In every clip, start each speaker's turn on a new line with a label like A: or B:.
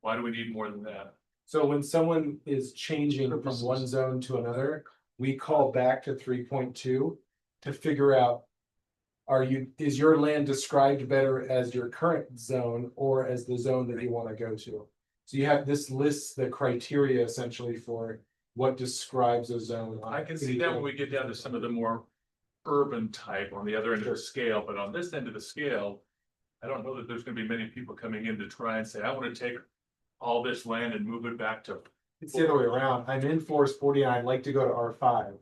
A: Why do we need more than that?
B: So when someone is changing from one zone to another, we call back to three point two to figure out. Are you, is your land described better as your current zone or as the zone that you wanna go to? So you have, this lists the criteria essentially for what describes a zone. on
A: I can see that when we get down to some of the more urban type on the other end of
B: Sure.
A: the scale, but on this end of the scale. I don't know that there's gonna be many people coming in to try and say, I wanna take all this land and move it back to.
B: It's the other way around. I'm in forest forty and I'd like to go to R five.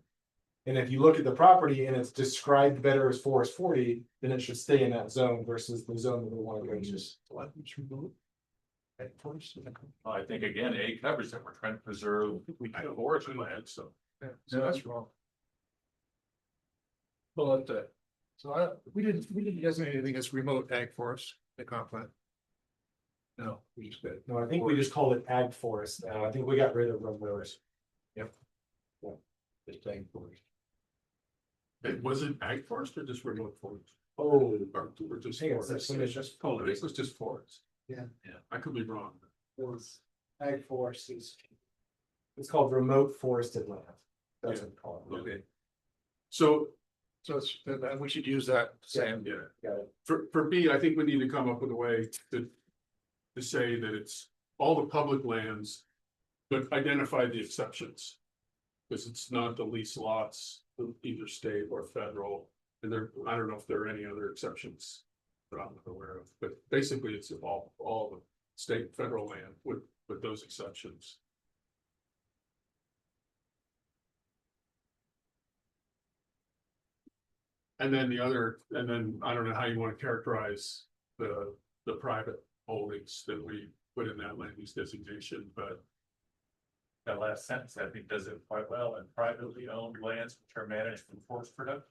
B: And if you look at the property and it's described better as forest forty, then it should stay in that zone versus the zone that we wanna go to.
A: I think again, A covers that we're trying to preserve forest land, so.
C: So that's wrong. But, uh, so I, we didn't, we didn't designate anything as remote ag forest, the comp plan. No, we just did.
B: No, I think we just called it ag forest now. I think we got rid of remote.
C: Just ag forest.
A: It wasn't ag forest or just remote forest?
B: Oh,
A: Or or just
B: Hang on a sec, let me
A: just. Oh, this was just forest.
C: Yeah.
A: Yeah, I could be wrong.
B: was ag forest is. It's called remote forested land. That's what it's called.
A: Okay. So
C: So it's, and and we should use that same.
A: Yeah.
B: Got
A: For, for me, I think we need to come up with a way to, to say that it's all the public lands, but identify the exceptions. Because it's not the lease lots, of either state or federal, and there, I don't know if there are any other exceptions that I'm not aware of, but basically it's all, all the state, and federal land with, with those exceptions. And then the other, and then I don't know how you want to characterize the, the private holdings that we put in that land use designation, but. That last sentence, I think, does it quite well, and privately owned lands which are managed for forest production.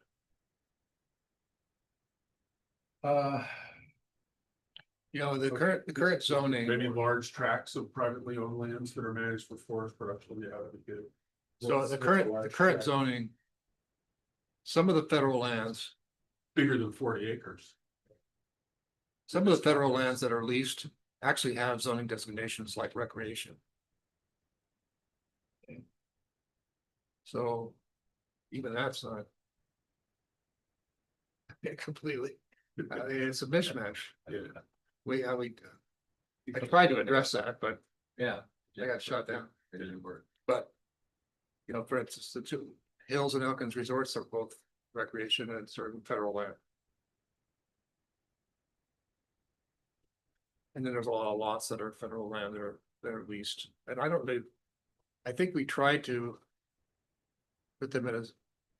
C: Uh. You know, the current, the current zoning.
A: Maybe large tracts of privately owned lands that are managed for forest production, yeah, that'd be good.
C: So the current, the current zoning. Some of the federal lands,
A: Bigger than forty acres.
C: some of the federal lands that are leased actually have zoning designations like recreation. So even that's not. Completely, I mean, it's a mismatch.
A: Yeah,
C: We, I, we, I tried to address that, but
D: Yeah.
C: I got shot down.
D: It didn't work.
C: But. You know, for instance, the two Hills and Elkins Resorts are both recreation and certain federal land. And then there's a lot of lots that are federal land that are, that are leased, and I don't believe. I think we tried to. Put them in a,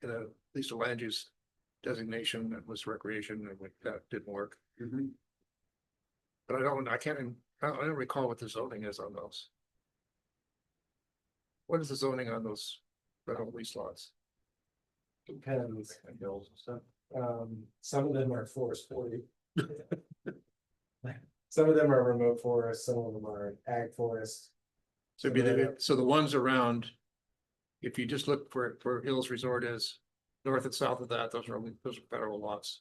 C: in a, at least a land use designation that was recreation and like that didn't work. But I don't, I can't, even- I don't I don't recall what the zoning is on those. What is the zoning on those rental lease lots?
B: Depends. Um, some of them are forest forty. Some of them are remote forest, some of them are ag forest.
C: So be the, so the ones around. If you just look for, for Hills Resort is north and south of that, those are, only- those are federal lots.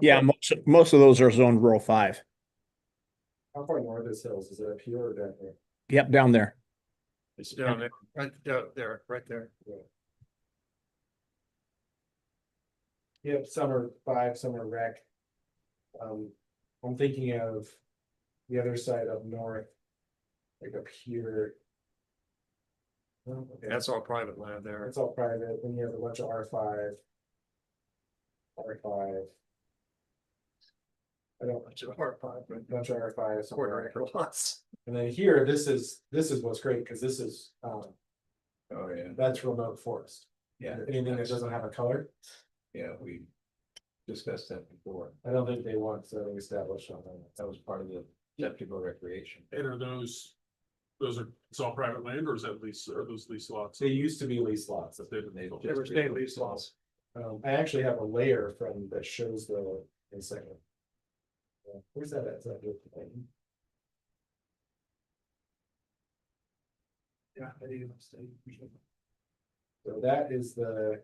E: Yeah, most, most of those are zoned rural five.
B: How far north is Hills? Is it up here or down here?
E: Yep, down there.
C: It's down there, right down there, right there.
B: Yep, some are five, some are rec. Um, I'm thinking of the other side up north. Like up here. Oh, okay.
C: That's all private land there.
B: It's all private, then you have a bunch of R five. R five. I don't,
C: It's a hard part, but
B: bunch of R five
C: quarter
B: somewhere,
C: acre lots.
B: and then here, this is, this is what's great, cause this is, um,
D: Oh, yeah,
B: that's remote forest.
D: yeah,
B: Anything that doesn't have a color,
D: yeah, we discussed that before.
B: I don't think they want, so we established on that.
D: That was part of the technical recreation.
A: and are those, those are, it's all private land or is that lease, are those lease lots?
B: They used to be lease lots.
A: That they-
D: They just-
C: They were state lease lots.
B: Um, I actually have a layer from that shows the, in a second. Uh, Where's that at? Is that with the thing?
C: Yeah.
B: So that is the